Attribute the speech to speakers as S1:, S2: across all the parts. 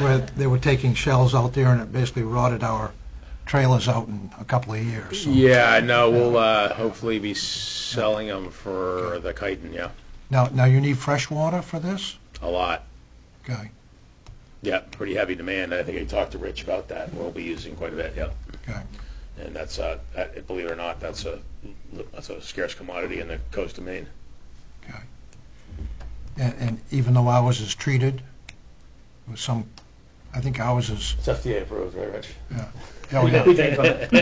S1: where they were taking shells out there and it basically rotted our trailers out in a couple of years. so-
S2: Yeah, no, we'll uh, hopefully be selling them for the chitin, yeah,
S1: Now, now you need fresh water for this?
S2: a lot.
S1: Okay,
S2: Yeah, pretty heavy demand. I think I talked to Rich about that. We'll be using quite a bit, yeah.
S1: okay.
S2: And that's, uh, that- believe it or not, that's a, that's a scarce commodity in the coast of Maine.
S1: And, and even though ours is treated with some, I think ours is,
S2: It's FDA approved, right, Rich?
S1: yeah, we got-
S2: You drink it,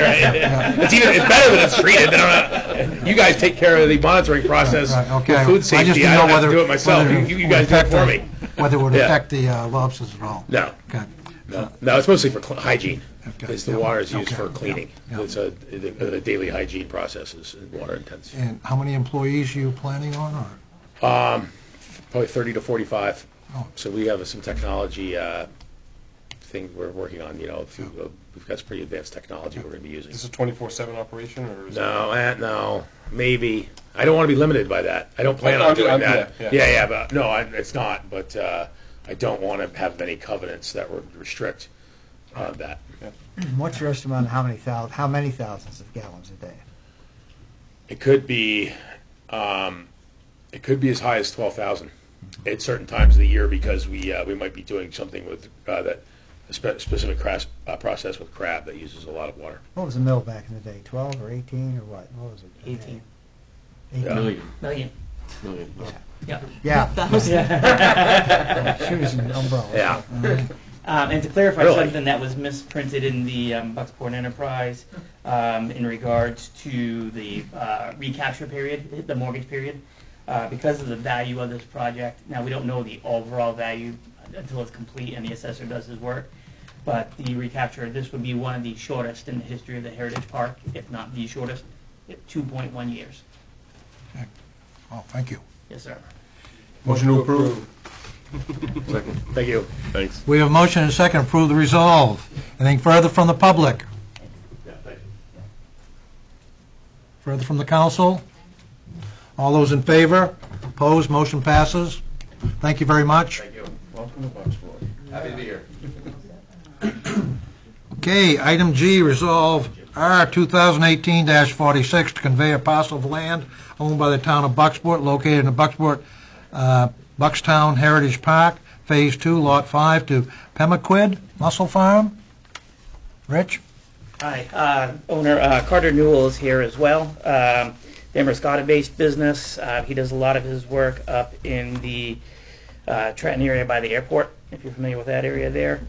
S2: right? It's either, it's better than it's treated. I don't know. You guys take care of the monitoring process
S1: Right, right,
S2: with
S1: okay.
S2: food
S1: I just
S2: safety.
S1: didn't
S2: I
S1: know
S2: don't have to
S1: whether-
S2: do it myself.
S1: whether
S2: You-
S1: it
S2: You you
S1: would
S2: guys do it
S1: affect the-
S2: for me.
S1: whether it would
S2: Yeah.
S1: affect the uh, lobsters at all.
S2: No,
S1: Okay,
S2: no, no, it's mostly for cl- hygiene.
S1: Okay,
S2: It's the
S1: yeah,
S2: water is used
S1: okay,
S2: for
S1: yeah,
S2: cleaning.
S1: yeah.
S2: It's a, the the daily hygiene process is water intensive.
S1: and how many employees are you planning on, or?
S2: Probably 30 to 45.
S1: Oh.
S2: So we have some technology uh, thing we're working on, you know, if you- uh, we've got some pretty advanced technology we're going to be using.
S3: Is this a twenty-four-seven operation, or is it?
S2: No, eh, no, maybe. I don't want to be limited by that. I don't plan
S3: I'm-
S2: on
S3: I'm-
S2: doing
S3: I'm-
S2: that.
S3: Oh, yeah,
S2: Yeah,
S3: yeah.
S2: yeah, but, no, I- it's not, but uh, I don't want to have any covenants that would restrict uh, that.
S4: What's your estimate on how many thou, how many thousands of gallons a day?
S2: It could be, um, it could be as high as twelve thousand at certain times of the year because we uh, we might be doing something with uh, that a spe- specific cras- uh, process with crab that uses a lot of water.
S4: What was the mill back in the day, twelve or eighteen or what? What was it?
S5: 18.
S2: Yeah.
S6: Million,
S5: Million.
S6: million.
S5: Yeah.
S4: Yeah,
S5: Thousand.
S4: shoes and umbrellas.
S2: Yeah.
S5: Um, and to clarify
S2: Really?
S5: something that was misprinted in the um, Bucksport Enterprise um, in regards to the uh, recapture period, the mortgage period, uh, because of the value of this project. Now we don't know the overall value until it's complete and the assessor does his work, but the recapture this would be one of the shortest in the history of the Heritage Park, if not the shortest, at 2.1 years.
S1: Oh, thank you.
S5: Yes, sir.
S3: Motion to approve.
S2: Thank you.
S3: Thanks.
S1: We have a motion and a second, approve the resolve. Anything further from the public? Further from the council? All those in favor? Opposed? Motion passes. Thank you very much.
S2: Thank you.
S3: Welcome to Bucksport.
S2: Happy to be here.
S1: Okay, item G, resolve R 2018-46 to convey a parcel of land owned by the town of Bucksport located in the Bucksport, uh, Buckstown Heritage Park, Phase 2, Lot 5, to Pemaquid Mussel Farm. Rich?
S5: Hi, uh, owner uh, Carter Newell is here as well. Um, Damascotta-based business. Uh, He does a lot of his work up in the uh, Trenton area by the airport, if you're familiar with that area there.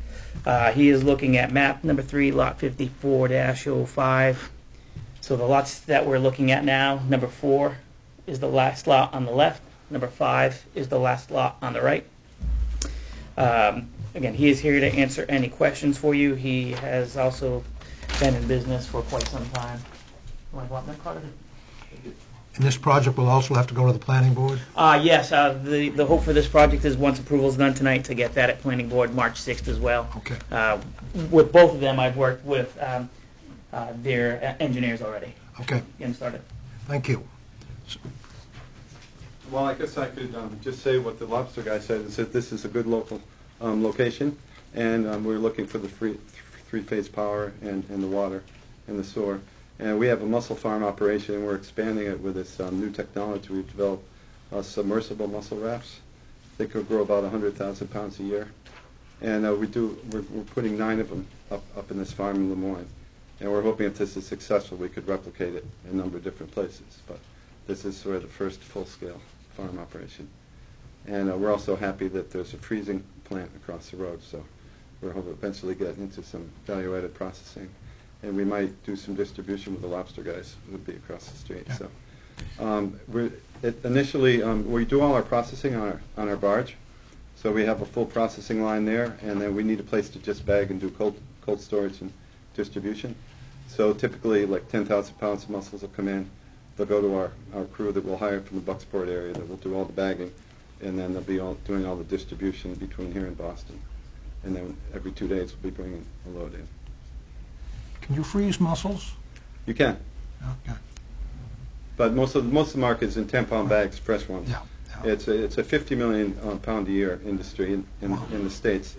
S5: Uh, He is looking at map number three, lot 54-05. So the lots that we're looking at now, number four is the last lot on the left, number five is the last lot on the right. Um, Again, he is here to answer any questions for you. He has also been in business for quite some time. You want to go up there, Carter?
S1: And this project will also have to go to the planning board?
S5: Uh, yes, uh, the, the hope for this project is once approval's done tonight, to get that at planning board March 6th as well.
S1: Okay.
S5: Uh, with both of them, I've worked with, um, uh, their uh, engineers already,
S1: Okay,
S5: getting started.
S1: thank you.
S7: Well, I guess I could um, just say what the lobster guy said, is that this is a good local um, location, and um, we're looking for the free- three-phase power and and the water and the sewer. And we have a mussel farm operation, and we're expanding it with this um, new technology. We've developed uh, submersible mussel rafts. They could grow about 100,000 pounds a year. And uh, we do, we're we're putting nine of them up up in this farm in Lemoine. And we're hoping if this is successful, we could replicate it in a number of different places. But this is sort of the first full-scale farm operation. And uh, we're also happy that there's a freezing plant across the road, so we're hoping to eventually get into some value-added processing. And we might do some distribution with the lobster guys, who would be across the street, so. Um, We're it- Initially, um, we do all our processing on our, on our barge, so we have a full processing line there, and then we need a place to just bag and do cold, cold storage and distribution. So typically, like 10,000 pounds of mussels will come in, they'll go to our, our crew that we'll hire from the Bucksport area that will do all the bagging, and then they'll be all, doing all the distribution between here and Boston. And then every two days, we'll be bringing a load in.
S1: Can you freeze mussels?
S7: You can,
S1: Okay,
S7: but most of, most of the market is in 10-pound bags, fresh ones.
S1: Yeah,
S7: It's a, it's a 50 million um, pound a year industry in, in in the States.